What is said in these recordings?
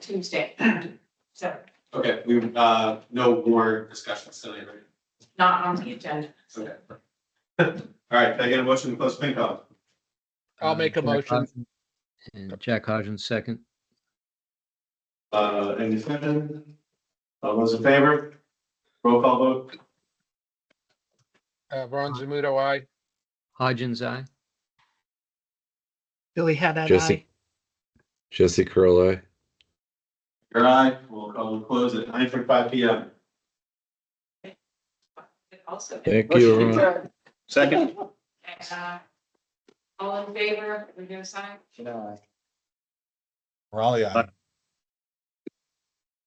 Tuesday. So Okay, we, uh, no more discussions tonight, right? not on the agenda. Okay. All right, can I get a motion to close FinCom? I'll Uh, make a Jack motion. Hodgson- And Jack Hodgins, second. Uh, any discussion? All those in favor? Roll call vote. Uh, Ron Zamuto, I. Hodgins, aye. Billy Haddad, Jesse. aye. Jesse Curl, aye. Your eye, we'll call and close at nine forty-five P M. Also. Thank you. everyone. Second. Uh, All in favor, we're gonna sign? Raleigh, I.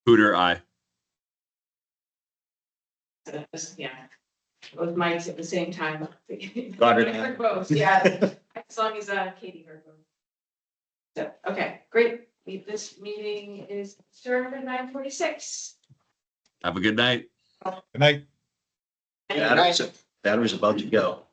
Hooter, I. Yeah. Both mics at the same time. Got it. I heard both, yeah. As long as uh, Katie heard both. So, okay, great. We- This meeting is adjourned at nine forty-six. Have a good night. Good night. Adam was about to go.